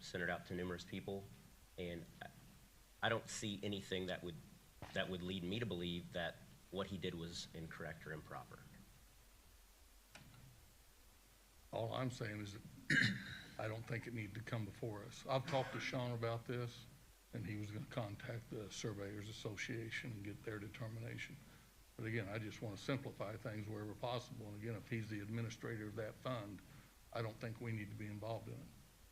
sent it out to numerous people, and I- I don't see anything that would, that would lead me to believe that what he did was incorrect or improper. All I'm saying is that I don't think it needed to come before us. I've talked to Sean about this, and he was gonna contact the Surveyors Association and get their determination. But again, I just wanna simplify things wherever possible, and again, if he's the administrator of that fund, I don't think we need to be involved in it.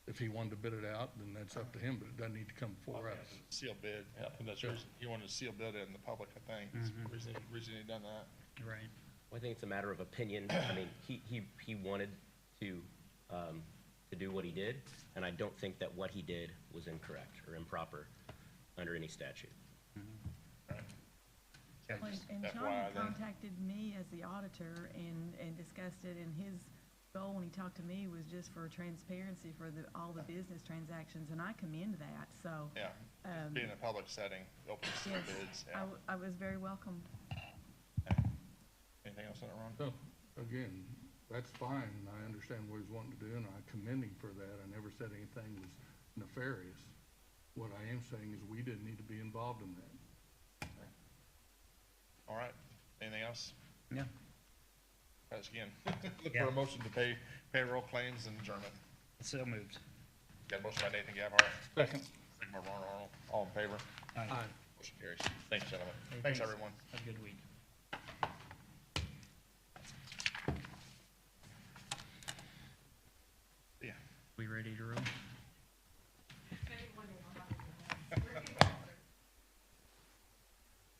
If he wanted to bid it out, then that's up to him, but it doesn't need to come before us. Seal bid, I think that's the reason, he wanted to seal bid it in the public, I think, is the reason, reason he done that. Right. Well, I think it's a matter of opinion. I mean, he, he, he wanted to, um, to do what he did, and I don't think that what he did was incorrect or improper under any statute. Yeah, Well, just And Sean FYI had then. contacted me as the auditor and, and discussed it, and his goal when he talked to me was just for transparency for the, all the business transactions, and I commend that, so. Yeah, Um, be in a public setting, open to seal Yes, bids, I, yeah. w- I was very welcomed. Anything else on that, Ron? So, again, that's fine, and I understand what he's wanting to do, and I commend him for that. I never said anything was nefarious. What I am saying is we didn't need to be involved in that. All right, anything else? Yeah. Guys, again, look for Yeah. a motion to pay payroll claims and adjournment. So moved. Got a motion by Nathan Gabhart. Second. Second by Ron Arnold, all in favor, Aye. Aye. motion carries. Thanks, gentlemen. Hey, Thanks, everyone. Have a good week. Yeah. We ready to roll?